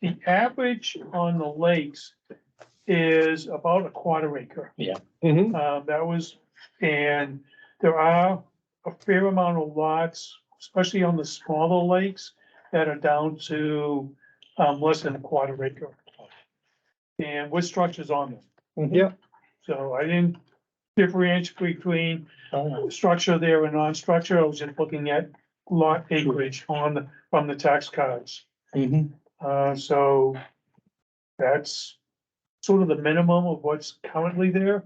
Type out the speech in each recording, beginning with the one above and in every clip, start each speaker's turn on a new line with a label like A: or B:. A: the average on the lakes is about a quarter acre.
B: Mhm.
A: Uh, that was, and there are a fair amount of lots, especially on the smaller lakes, that are down to, um, less than a quarter acre. And with structures on them,
B: Yeah.
A: so I didn't differentiate between
B: Oh,
A: structure there and non-structure, I was just looking at lot acreage on, the- from the tax cards.
B: mhm.
A: Uh, so that's sort of the minimum of what's currently there.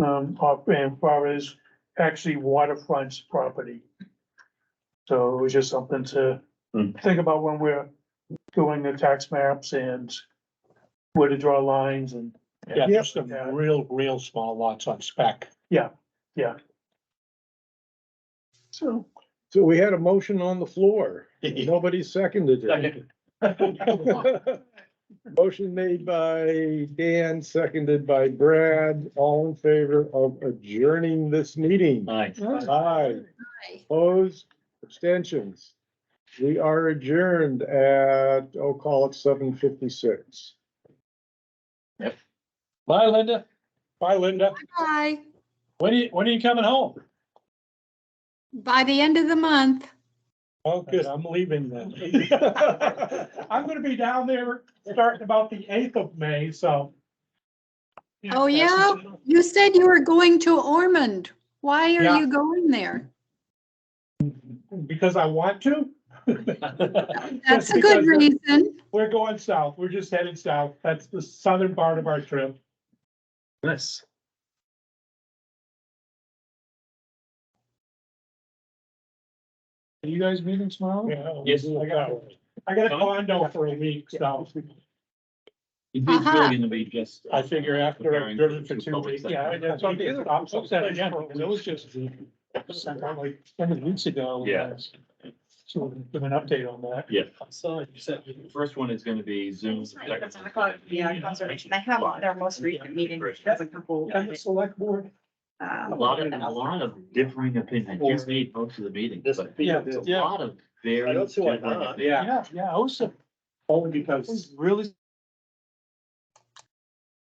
A: Um, up and far as actually waterfront property. So it was just something to
C: Hmm.
A: think about when we're doing the tax maps and where to draw lines and,
B: Yeah, just some
A: Yeah.
B: real, real small lots on spec.
A: so.
D: So we had a motion on the floor.
C: Second.
D: Nobody seconded it. Motion made by Dan, seconded by Brad, all in favor of adjourning this meeting.
C: Aye.
D: Aye. Opposed, abstentions. We are adjourned at, oh, call it seven fifty-six.
B: Bye, Linda. Bye, Linda.
E: Bye,
B: When are you, when are you coming home?
E: by the end of the month.
B: Oh, good, I'm leaving then.
A: I'm gonna be down there starting about the eighth of May, so.
E: Oh, yeah? You said you were going to Ormond. Why
A: Yeah.
E: are you going there?
A: Because I want to.
E: That's
A: Just
E: a good
A: because-
E: reason.
A: We're going south. We're just headed south. That's the southern part of our trip.
C: Nice.
A: Are you guys meeting tomorrow?
C: Yes.
A: I got, I got a condo for a week, so.
C: It
E: did Uh-huh. really
C: in the beach, yes.
B: I figure
C: uh,
B: after I've driven for two weeks.
A: Yeah, that's what I'm getting- I'm so sad again, because it was just, it was like seven weeks ago.
C: Yeah.
A: So we'll give an update on that.
C: Yeah. So you said the first one is gonna be Zoom.
F: Yeah, conservation. They have their most recent meeting, which has a couple. um,
A: And the select board.
C: A lot of, a lot of differing opinions, just made most of the meeting, but
A: Yeah,
C: it's a lot of very.
G: I don't see why
C: differing
G: not.
C: opinions.
A: Yeah, yeah, I was. Only because. Really